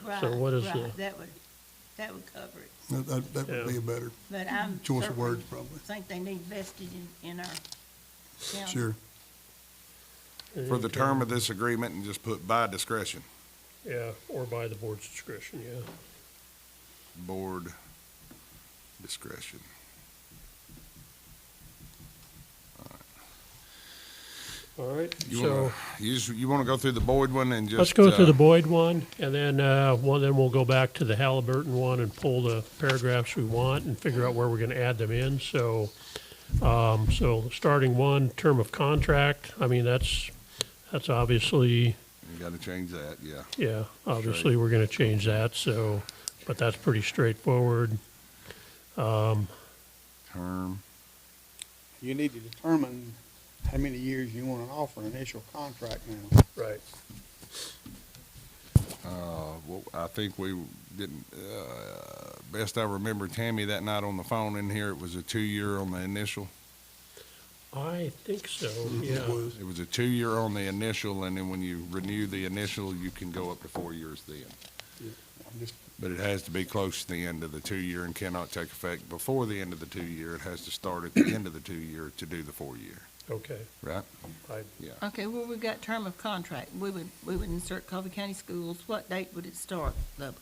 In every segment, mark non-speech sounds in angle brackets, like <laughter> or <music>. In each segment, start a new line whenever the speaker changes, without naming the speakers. So
Right,
what is
right.
the,
That would, that would cover it,
That- That, that would be a better
but I'm.
choice of
certainly
words, probably.
Think they need vested in, in our county.
Sure.
For the term of this agreement and just put by discretion,
yeah, or by the board's discretion, yeah.
board discretion.
All right,
You
so
wanna, you just, you wanna go through the Boyd one and just?
let's go
uh,
through the Boyd one, and then, uh, well, then we'll go back to the Halliburton one and pull the paragraphs we want and figure out where we're gonna add them in, so, um, so starting one, term of contract, I mean, that's, that's obviously,
You gotta change that, yeah.
yeah, obviously, we're gonna change that, so, but that's pretty straightforward.
Term,
You need to determine how many years you want to offer an initial contract now.
Right.
uh, well, I think we didn't, uh, best I remember Tammy that night on the phone in here, it was a two-year on the initial.
I think so,
Mm-hmm.
yeah.
It was.
It was a two-year on the initial, and then when you renew the initial, you can go up to four years then.
I'm just,
But it has to be close to the end of the two-year and cannot take effect before the end of the two-year. It has to start at the <coughs> end of the two-year to do the four-year,
Okay,
right?
I,
Yeah.
Okay, well, we've got term of contract. We would, we would insert Coffee County Schools. What date would it start? The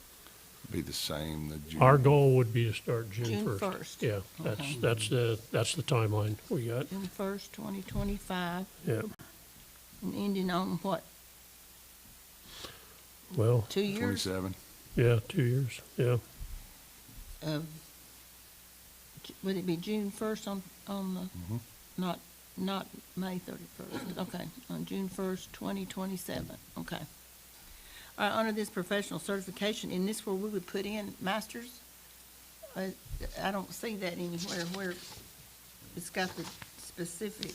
Be the same, the June.
our goal would be to start June
June
first.
1st.
Yeah, that's,
Okay.
that's the, that's the timeline we got,
June first, twenty twenty-five,
yeah.
and ending on what,
Well,
two years
Twenty-seven.
yeah, two years, yeah.
of, um, Ju- would it be June first on, on the, not, not May thirty-first? Okay, on June first, twenty twenty-seven, okay. All right, under this professional certification, in this where we would put in masters? I, I don't see that anywhere where it's got the specific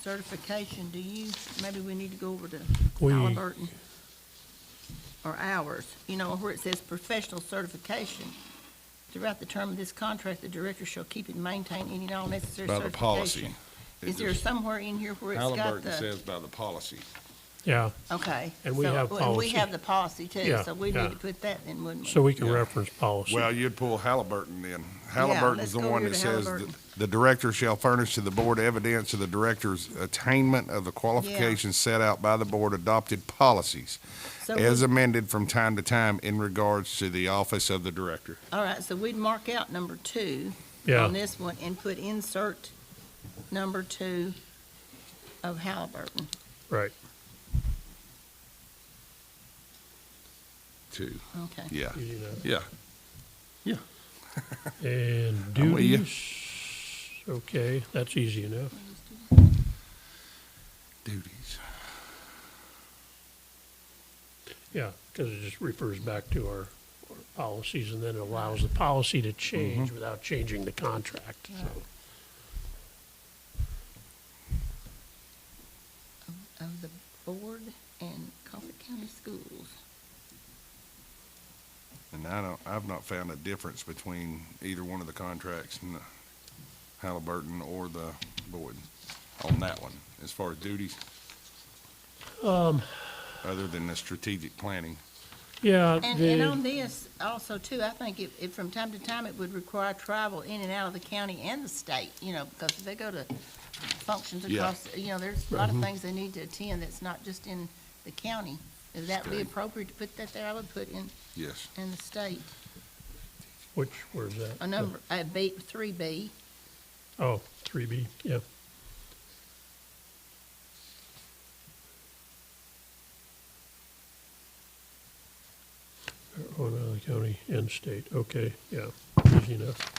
certification. Do you, maybe we need to go over to
We-
Halliburton? Or ours, you know, where it says professional certification. Throughout the term of this contract, the director shall keep and maintain any and all necessary
By the policy.
certification.
It
Is there
just-
somewhere in here where it's got
Halliburton
the,
says by the policy.
Yeah,
okay.
And we
so-
have
And we
policy.
have the policy too,
Yeah,
so we
yeah.
need to put that in, wouldn't we?
so we can
Yeah.
reference policy.
Well, you'd pull Halliburton in. Halliburton's
let's
the
go
one
over
that
to
says
Halliburton.
that the director shall furnish to the board evidence of the director's attainment of the qualifications set out by the board adopted policies
So we-
as amended from time to time in regards to the office of the director.
All right, so we'd mark out number two
Yeah.
on this one and put insert number two of Halliburton.
Right,
Two,
Okay.
yeah,
you do that.
yeah.
<laughs> And
I'm with you.
duties, okay, that's easy enough.
Duties.
Yeah, because it just refers back to our our policies and then it allows the policy
Mm-hmm.
to change without changing the contract, so.
Of the board and Coffee County Schools.
And I don't, I've not found a difference between either one of the contracts, n- Halliburton or the Boyd, on that one, as far as duties. Um. Other than the strategic planning.
Yeah,
And, and
the,
on this also too, I think if, if from time to time it would require travel in and out of the county and the state, you know, because if they go to functions
Yeah. Mm-hmm.
across, you know, there's a lot of things they need to attend that's not just in the county. Would that be
State.
appropriate to put that there? I would put in,
Yes.
in the state,
which, where's that?
a number, uh, B, three B.
Oh, three B, yeah. Marijuana out of the county and state, okay, yeah, easy enough.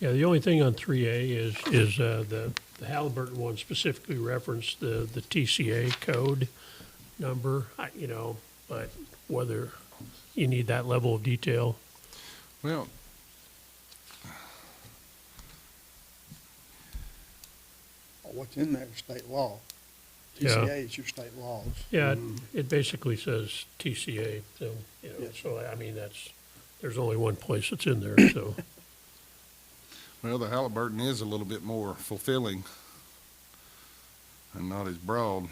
Yeah, the only thing on three A is, is, uh, the the Halliburton one specifically referenced the, the TCA code number, I, you know, but whether you need that level of detail,
Well.
what's in there is state law.
Yeah.
TCA is your state laws.
Yeah, it- it basically says TCA, so, you know,
Yeah.
so, I mean, that's, there's only one place it's in there, so,
Well, the Halliburton is a little bit more fulfilling and not as broad.